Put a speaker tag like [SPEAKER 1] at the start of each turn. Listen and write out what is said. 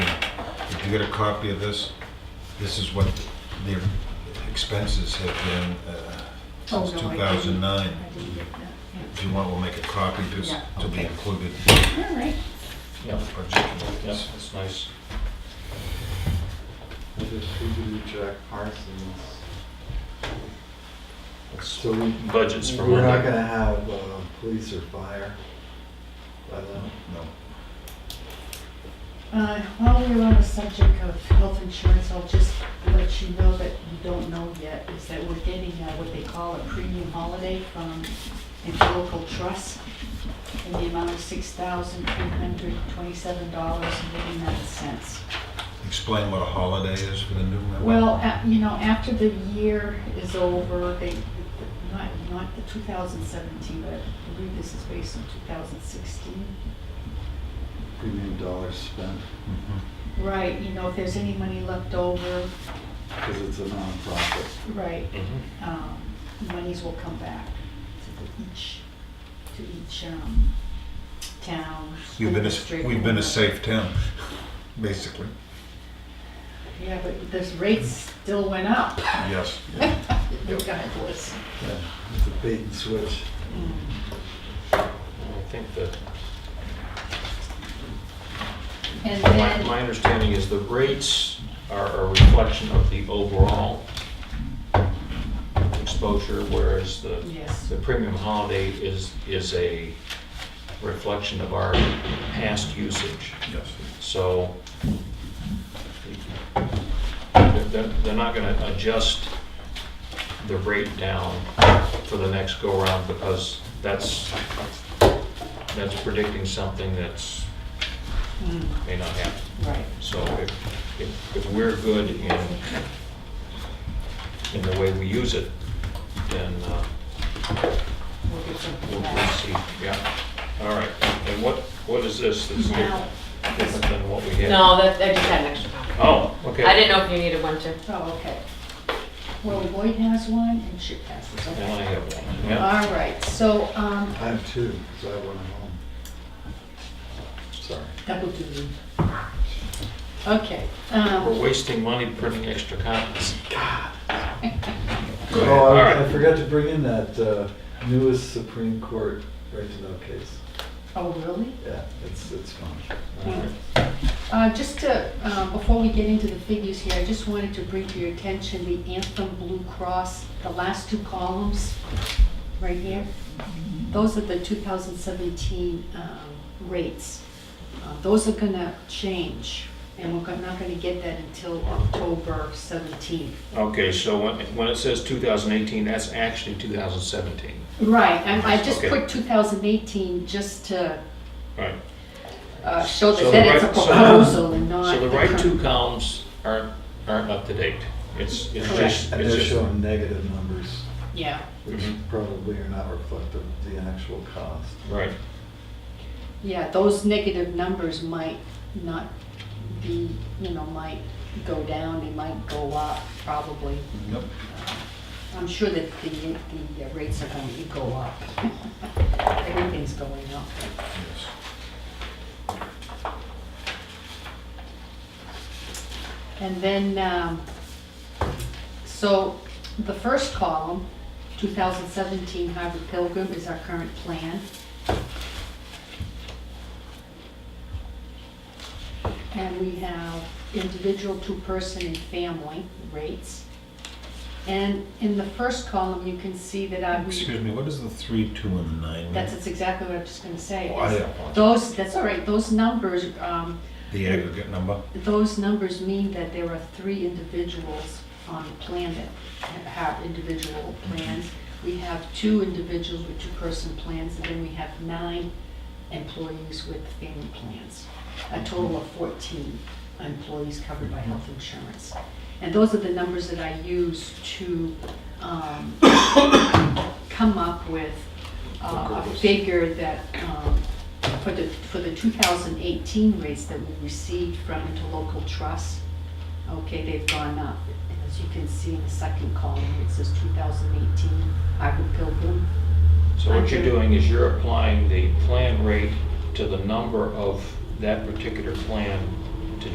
[SPEAKER 1] you get a copy of this? This is what their expenses have been uh,
[SPEAKER 2] Oh,
[SPEAKER 1] since
[SPEAKER 2] no, I didn't.
[SPEAKER 1] 2009.
[SPEAKER 2] I didn't get that.
[SPEAKER 1] If you want, we'll make a copy just
[SPEAKER 2] Yeah.
[SPEAKER 1] to be
[SPEAKER 3] Okay.
[SPEAKER 1] included in the
[SPEAKER 2] All right.
[SPEAKER 3] Yep,
[SPEAKER 1] budget.
[SPEAKER 3] yep, that's nice.
[SPEAKER 4] I distributed Jack Parsons.
[SPEAKER 3] That's
[SPEAKER 4] So we,
[SPEAKER 3] budgets for
[SPEAKER 4] we're not
[SPEAKER 3] Monday.
[SPEAKER 4] gonna have, uh, police or fire by then.
[SPEAKER 1] No.
[SPEAKER 2] Uh, While we're on the subject of health insurance, I'll just let you know that you don't know yet, is that we're getting uh, what they call a premium holiday from a local trust in the amount of six thousand three hundred twenty-seven dollars and eighty-nine cents.
[SPEAKER 1] Explain what a holiday is for the new member.
[SPEAKER 2] Well, a- you know, after the year is over, they, not, not the 2017, but I believe this is based on 2016.
[SPEAKER 4] Premium dollars spent,
[SPEAKER 1] Mhm.
[SPEAKER 2] Right, you know, if there's any money left over,
[SPEAKER 4] cause it's a nonprofit.
[SPEAKER 2] right,
[SPEAKER 3] Mhm.
[SPEAKER 2] um, monies will come back to the each, to each um, town.
[SPEAKER 1] You've been,
[SPEAKER 2] district,
[SPEAKER 1] a- we've been a
[SPEAKER 2] whatever.
[SPEAKER 1] safe town, basically.
[SPEAKER 2] Yeah, but this rates still went up.
[SPEAKER 1] Yes.
[SPEAKER 2] Regardless.
[SPEAKER 4] Yeah, It's a bait and switch.
[SPEAKER 2] Mm.
[SPEAKER 3] I think that,
[SPEAKER 2] And
[SPEAKER 3] my,
[SPEAKER 2] then.
[SPEAKER 3] my understanding is the rates are a reflection of the overall exposure, whereas the,
[SPEAKER 2] Yes.
[SPEAKER 3] the premium holiday is, is a reflection of our past usage.
[SPEAKER 1] Yes.
[SPEAKER 3] So they're, they're- they're not gonna adjust the rate down for the next go-around because that's, that's predicting something that's,
[SPEAKER 2] Mm,
[SPEAKER 3] may not happen.
[SPEAKER 2] Right.
[SPEAKER 3] So if, if, if we're good in, in the way we use it, then uh,
[SPEAKER 2] We'll get
[SPEAKER 3] we'll
[SPEAKER 2] something
[SPEAKER 3] we'll
[SPEAKER 2] back.
[SPEAKER 3] see, yeah. All right, and what, what is this that's
[SPEAKER 2] Now,
[SPEAKER 3] different than what we had?
[SPEAKER 5] No, that, I just had an extra copy.
[SPEAKER 3] Oh, okay.
[SPEAKER 5] I didn't know if you needed one too.
[SPEAKER 2] oh, okay. Well, Lloyd has one and Chip has this,
[SPEAKER 3] And
[SPEAKER 2] okay.
[SPEAKER 3] I have one, yeah.
[SPEAKER 2] All right, so, um,
[SPEAKER 4] I have two, cause I have one at home. Sorry.
[SPEAKER 2] double duty. Okay,
[SPEAKER 3] We're
[SPEAKER 2] um,
[SPEAKER 3] wasting money printing extra copies. Go ahead.
[SPEAKER 4] Oh,
[SPEAKER 3] All
[SPEAKER 4] I- I
[SPEAKER 3] right.
[SPEAKER 4] forgot to bring in that, uh, newest Supreme Court right to know case.
[SPEAKER 2] oh, really?
[SPEAKER 4] Yeah, it's, it's fun.
[SPEAKER 3] All right.
[SPEAKER 2] Uh, just to, um, before we get into the figures here, I just wanted to bring to your attention the Anthem Blue Cross, the last two columns, right here. Those are the 2017 um, rates. Uh, Those are gonna change, and we're not gonna get that until October 17th.
[SPEAKER 3] Okay, so when, when it says 2018, that's actually 2017.
[SPEAKER 2] Right, and I just
[SPEAKER 3] Okay.
[SPEAKER 2] put 2018 just to
[SPEAKER 3] All right.
[SPEAKER 2] uh, show
[SPEAKER 3] So
[SPEAKER 2] that that it's
[SPEAKER 3] the
[SPEAKER 2] a
[SPEAKER 3] right- so the-
[SPEAKER 2] proposal and not.
[SPEAKER 3] So the
[SPEAKER 2] the
[SPEAKER 3] right two
[SPEAKER 2] current-
[SPEAKER 3] columns aren't, aren't up to date. It's, it's just,
[SPEAKER 4] And they're
[SPEAKER 3] it's just,
[SPEAKER 4] showing negative numbers,
[SPEAKER 2] Yeah,
[SPEAKER 4] which
[SPEAKER 3] Mhm.
[SPEAKER 4] probably are not reflective of the actual cost.
[SPEAKER 3] right.
[SPEAKER 2] yeah, those negative numbers might not be, you know, might go down, they might go up, probably. Uh,
[SPEAKER 1] Yep.
[SPEAKER 2] I'm sure that the, the uh, rates are going to go up. Everything's going up.
[SPEAKER 1] Yes.
[SPEAKER 2] And then, um, so the first column, 2017 Harvard Pilgrim is our current plan. And we have individual, two-person, and family rates. And in the first column, you can see that our.
[SPEAKER 1] Excuse me, what is the three, two, and nine?
[SPEAKER 2] That's that's exactly what I'm just going to say.
[SPEAKER 1] Oh, I
[SPEAKER 2] is
[SPEAKER 1] apologize.
[SPEAKER 2] Those, that's all right, those numbers, um,
[SPEAKER 1] The aggregate number?
[SPEAKER 2] those numbers mean that there are three individuals on the plan that have individual plans. We have two individuals with two-person plans, and then we have nine employees with family plans. A total of 14 employees covered by health insurance. And those are the numbers that I use to um, come up with uh, a figure that, um, for the, for the 2018 rates that we received from interlocal trust, okay, they've gone up. And As you can see in the second column, it says 2018 Harvard Pilgrim.
[SPEAKER 3] So what you're doing is you're applying the plan rate to the number of that particular plan